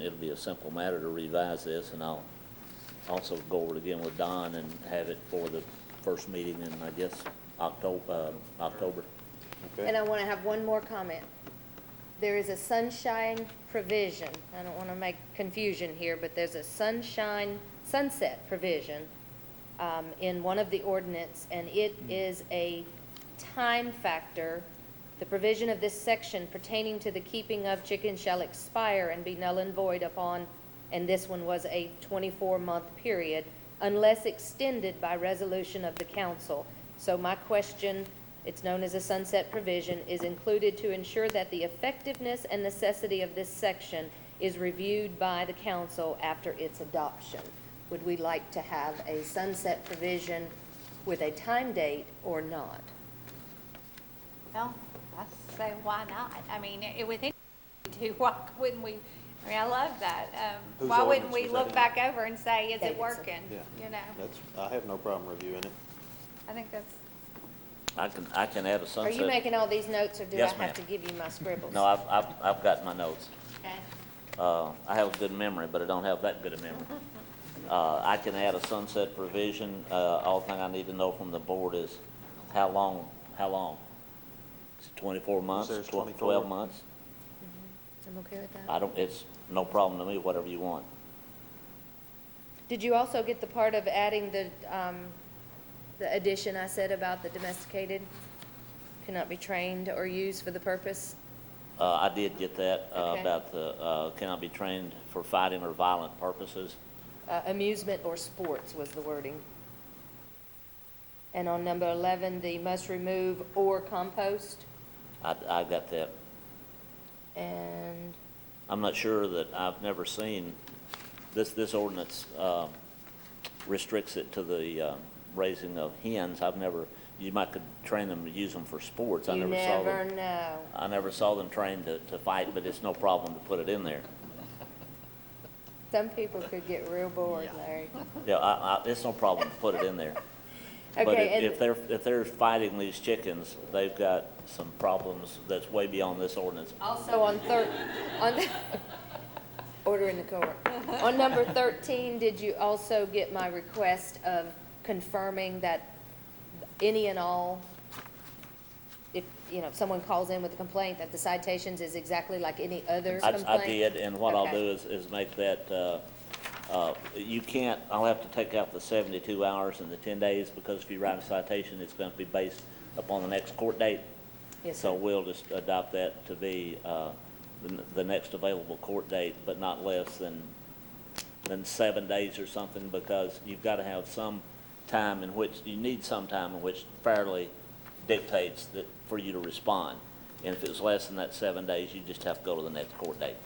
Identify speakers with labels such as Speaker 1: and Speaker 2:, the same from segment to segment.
Speaker 1: it'll be a simple matter to revise this, and I'll also go over it again with Don and have it for the first meeting in, I guess, October, uh, October.
Speaker 2: And
Speaker 3: Okay,
Speaker 2: I want to have one more comment. There is a sunshine provision. I don't want to make confusion here, but there's a sunshine, sunset provision um, in one of the ordinance, and it is a time factor. The provision of this section pertaining to the keeping of chickens shall expire and be null and void upon, and this one was a 24-month period, unless extended by resolution of the council. So my question, it's known as a sunset provision, is included to ensure that the effectiveness and necessity of this section is reviewed by the council after its adoption. Would we like to have a sunset provision with a time date or not?
Speaker 4: Well, I say why not? I mean, it with any, do, why wouldn't we, I mean, I love that. Um,
Speaker 3: Whose
Speaker 4: Why wouldn't
Speaker 3: ordinance
Speaker 4: we
Speaker 3: was that
Speaker 4: look
Speaker 3: in?
Speaker 4: back over and say, is it
Speaker 2: Davidson.
Speaker 4: working?
Speaker 3: Yeah.
Speaker 4: You know,
Speaker 3: that's, I have no problem reviewing it.
Speaker 4: I think that's,
Speaker 1: I can, I can add a
Speaker 2: Are
Speaker 1: sunset.
Speaker 2: you making all these notes, or do I
Speaker 1: Yes,
Speaker 2: have
Speaker 1: ma'am.
Speaker 2: to give you my scribbles?
Speaker 1: No, I've, I've, I've got my notes.
Speaker 4: okay.
Speaker 1: Uh, I have a good memory, but I don't have that good a memory. Uh, I can add a sunset provision. Uh, all thing I need to know from the board is how long, how long? Is it Twenty-four months,
Speaker 3: says
Speaker 1: tw-
Speaker 3: 24.
Speaker 1: twelve months?
Speaker 2: I'm okay with that.
Speaker 1: I don't, it's no problem to me, whatever you want.
Speaker 2: Did you also get the part of adding the, um, the addition I said about the domesticated cannot be trained or used for the purpose?
Speaker 1: Uh, I did get that, uh,
Speaker 2: Okay.
Speaker 1: about the, uh, cannot be trained for fighting or violent purposes.
Speaker 2: Uh, amusement or sports was the wording. And on number eleven, the must remove or compost,
Speaker 1: I, I got that.
Speaker 2: and
Speaker 1: I'm not sure that, I've never seen, this, this ordinance um, restricts it to the um, raising of hens. I've never, you might could train them to use them for sports. I
Speaker 2: you
Speaker 1: never saw
Speaker 2: never
Speaker 1: them.
Speaker 2: know.
Speaker 1: I never saw them trained to, to fight, but it's no problem to put it in there.
Speaker 2: Some people could get real bored, Larry.
Speaker 1: Yeah, I, I, it's no problem to put it in there. But
Speaker 2: Okay,
Speaker 1: if-
Speaker 2: and-
Speaker 1: if they're, if they're fighting these chickens, they've got some problems that's way beyond this ordinance.
Speaker 2: Also on thir, on, order in the court. On number thirteen, did you also get my request of confirming that any and all, if, you know, if someone calls in with a complaint, that the citations is exactly like any other
Speaker 1: I-
Speaker 2: complaint?
Speaker 1: I did, and what I'll
Speaker 2: Okay.
Speaker 1: do is, is make that, uh, uh, you can't, I'll have to take out the seventy-two hours and the ten days, because if you write a citation, it's gonna be based upon the next court date.
Speaker 2: Yes,
Speaker 1: So
Speaker 2: sir.
Speaker 1: we'll just adopt that to be, uh, the, n- the next available court date, but not less than, than seven days or something, because you've gotta have some time in which, you need some time in which fairly dictates that, for you to respond. And if it's less than that seven days, you just have to go to the next court date.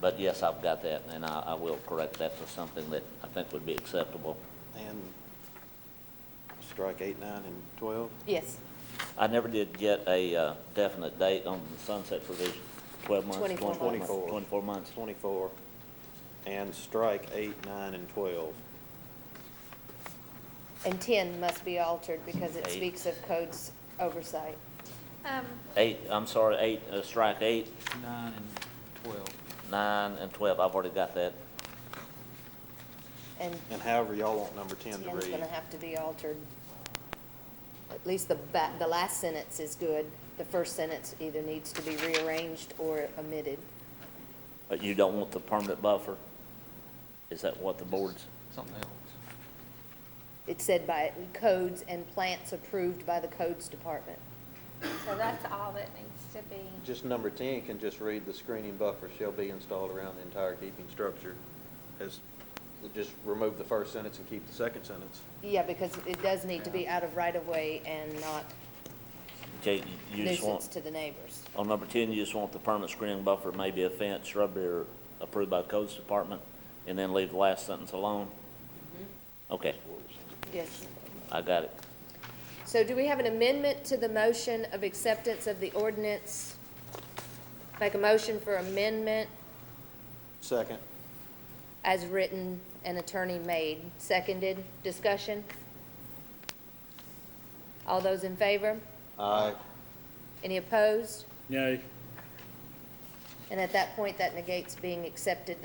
Speaker 1: But yes, I've got that, and I, I will correct that to something that I think would be acceptable.
Speaker 3: And strike eight, nine, and twelve?
Speaker 2: Yes,
Speaker 1: I never did get a uh, definite date on the sunset provision, twelve months,
Speaker 2: 24
Speaker 1: twenty-four
Speaker 2: months.
Speaker 1: months.
Speaker 3: 24.
Speaker 1: Twenty-four months.
Speaker 3: Twenty-four. And strike eight, nine, and twelve.
Speaker 2: and ten must be altered because it
Speaker 1: Eight.
Speaker 2: speaks of codes oversight.
Speaker 4: Um,
Speaker 1: Eight, I'm sorry, eight, uh, strike eight,
Speaker 5: nine and twelve.
Speaker 1: nine, and twelve, I've already got that.
Speaker 2: And
Speaker 3: And however y'all want number ten to
Speaker 2: Ten's
Speaker 3: read.
Speaker 2: gonna have to be altered. At least the ba, the last sentence is good. The first sentence either needs to be rearranged or omitted.
Speaker 1: But you don't want the permanent buffer? Is that what the board's?
Speaker 5: Something else.
Speaker 2: It said by codes and plants approved by the codes department.
Speaker 4: so that's all that needs to be.
Speaker 3: Just number ten can just read, the screening buffer shall be installed around the entire keeping structure. As, just remove the first sentence and keep the second sentence.
Speaker 2: Yeah, because it does need to be out of right of way and not
Speaker 1: Okay, you just
Speaker 2: nuisance
Speaker 1: want,
Speaker 2: to the neighbors.
Speaker 1: on number ten, you just want the permanent screening buffer, maybe a fence, shrubbery, or approved by the codes department, and then leave the last sentence alone? Okay,
Speaker 2: Yes.
Speaker 1: I got it.
Speaker 2: So do we have an amendment to the motion of acceptance of the ordinance? Make a motion for amendment
Speaker 3: Second.
Speaker 2: as written and attorney made. Seconded, discussion? All those in favor?
Speaker 3: Aye.
Speaker 2: Any opposed?
Speaker 6: Yay.
Speaker 2: And at that point, that negates being accepted the